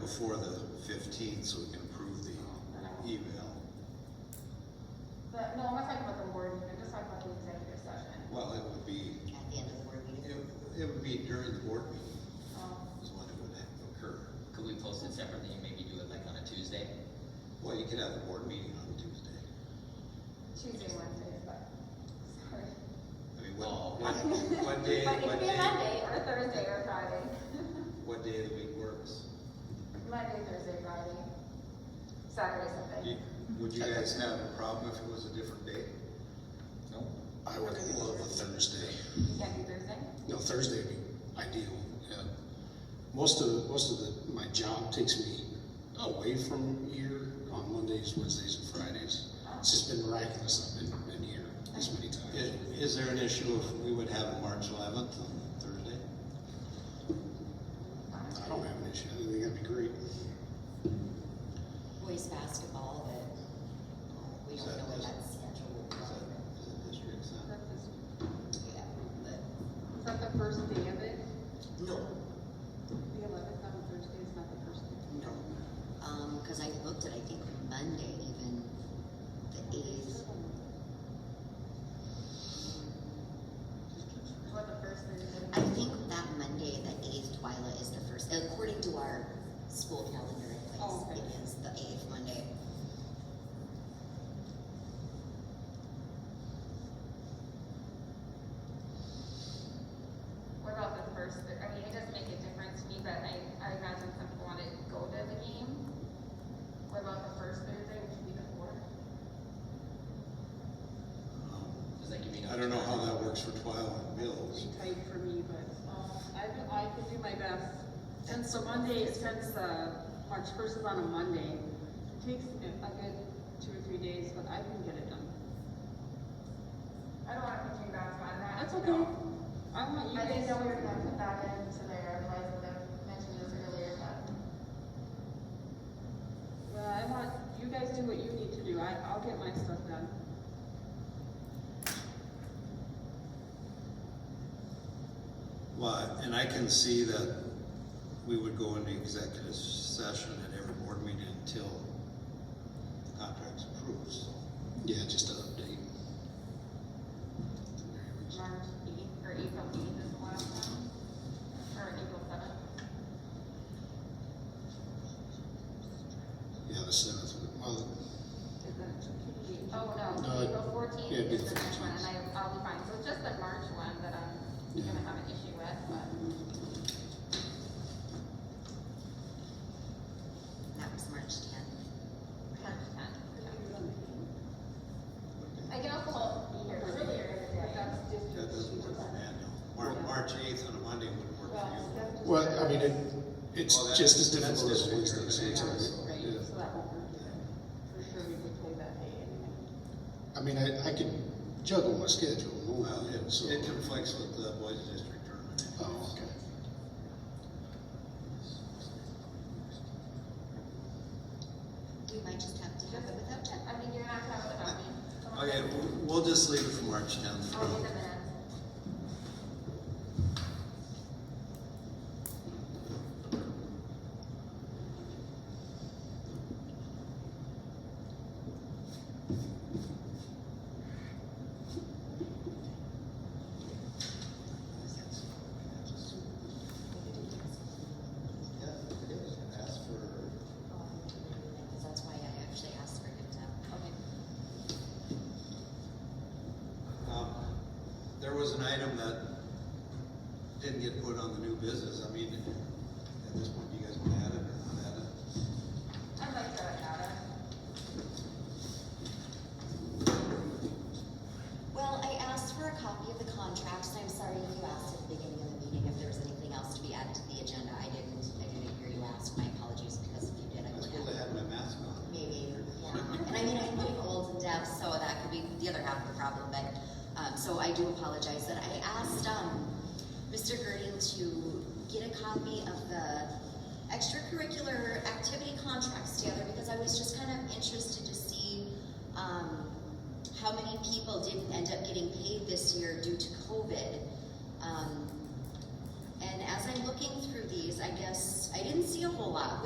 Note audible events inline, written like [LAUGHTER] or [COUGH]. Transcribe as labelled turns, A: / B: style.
A: before the fifteenth, so we can approve the email.
B: But, no, I'm not talking about the board meeting, I'm just talking about the executive session.
A: Well, it would be,
C: at the end of the board meeting.
A: it, it would be during the board meeting
B: Um,
A: is when it would occur.
D: Could we post it separately and maybe do it like on a Tuesday?
A: Well, you could have the board meeting on Tuesday.
B: Tuesday, Wednesday, but, sorry.
A: I mean, what,
D: Oh.
A: what,
B: [LAUGHS]
A: what day,
B: But it could
A: what
B: be a
A: day,
B: Monday, or a Thursday, or a Friday.
A: what day of the week works?
B: Monday, Thursday, Friday, Saturday,
A: You-
B: Sunday.
A: Would you guys have a problem if it was a different date?
D: No?
E: I would love a Thursday.
B: You can't do Thursday?
E: No, Thursday would be ideal. Yeah. Most of most of the my job takes me away from here on Mondays, Wednesdays, and Fridays. It's just been miraculous. I've been, been here this many times.
A: Is, is there an issue if we would have it March eleventh on Thursday?
E: I don't have an issue. I think that'd be great.
C: Boys basketball, but we don't know what that schedule will
A: Is that, is that
C: be.
A: district seven?
B: Is
C: Yeah, but
B: that the first day of it?
E: No,
B: The eleventh on Thursday is not the first day.
E: no.
C: Um, cause I looked at, I think Monday even, the eighth,
B: What, the first Thursday?
C: I think that Monday, the eighth, Twyla is the first, according to our school calendar, it
B: Oh, okay.
C: is, it is the eighth Monday.
B: What about the first, I mean, it doesn't make a difference to me, but I, I imagine some people want to go to the game. What about the first Thursday, which would be the fourth?
A: Um,
D: Does that give you
A: I
D: enough?
A: don't know how
D: time?
A: that works for Twilight Mills.
F: be tight for me, but um, I, do- I can do my best. Since the Monday, since uh, March first is on a Monday, it takes uh, a good two or three days, but I can get it done.
B: I don't want to put you guys on that.
F: That's
B: no.
F: okay. I want you
B: I didn't
F: guys.
B: know we were going to put that into there, otherwise I would have mentioned this earlier, but.
F: Well, I want you guys do what you need to do. I, I'll get my stuff done.
A: Well, and I can see that we would go into executive session at every board meeting until the contract's approved, so.
E: Yeah, just an update.
B: March eighth, or April eighth is the last one, or April seventh.
E: Yeah, the seventh. Well,
F: Is that-
B: Oh, no,
E: No, it-
B: April fourteenth
E: yeah, it'd be
B: is the
E: the
B: next one, and
E: 14th.
B: I, I'll be fine, so it's just the March one that I'm
E: Yeah.
B: gonna have an issue with, but.
C: That was March tenth.
B: Ten, ten, yeah. I can also be here earlier in the
F: But
B: day.
F: that's district.
A: That doesn't work for Amanda. Mar- March eighth on a Monday wouldn't work for
F: that's
E: well, I mean, it, it's
A: Well, that's-
E: just as
A: that's
E: difficult as
A: different.
E: Wednesday. So it's all right.
F: Right,
E: Yeah.
F: so that won't work either. For sure, we could play that day anyway.
E: I mean, I, I can juggle my schedule.
A: you. Well,
E: so.
A: it, it conflicts with the boys district tournament.
E: Oh, okay.
C: We might just have to have it without Jen.
B: I mean, you're not gonna have it without me. Come on.
A: Okay, we'll- we'll just leave it for March tenth.
B: I'll do the minutes.
A: Yeah, it is. Ask for,
C: Because that's why I actually asked for him to, okay.
A: um, there was an item that didn't get put on the new business. I mean, at this point, do you guys want to add it or not add it?
B: I'd like to have it.
C: Well, I asked for a copy of the contract, and I'm sorry if you asked at the beginning of the meeting if there was anything else to be added to the agenda. I didn't, I didn't hear you ask. My apologies, because if you did, I
A: I was
C: would
A: supposed to
C: have.
A: have my mask on.
C: Maybe, yeah. And I mean, I'm getting old and deaf, so that could be the other half of the problem, but, um, so I do apologize that I asked, um, Mr. Girding to get a copy of the extracurricular activity contracts together, because I was just kind of interested to see, um, how many people didn't end up getting paid this year due to COVID. Um, and as I'm looking through these, I guess, I didn't see a whole lot,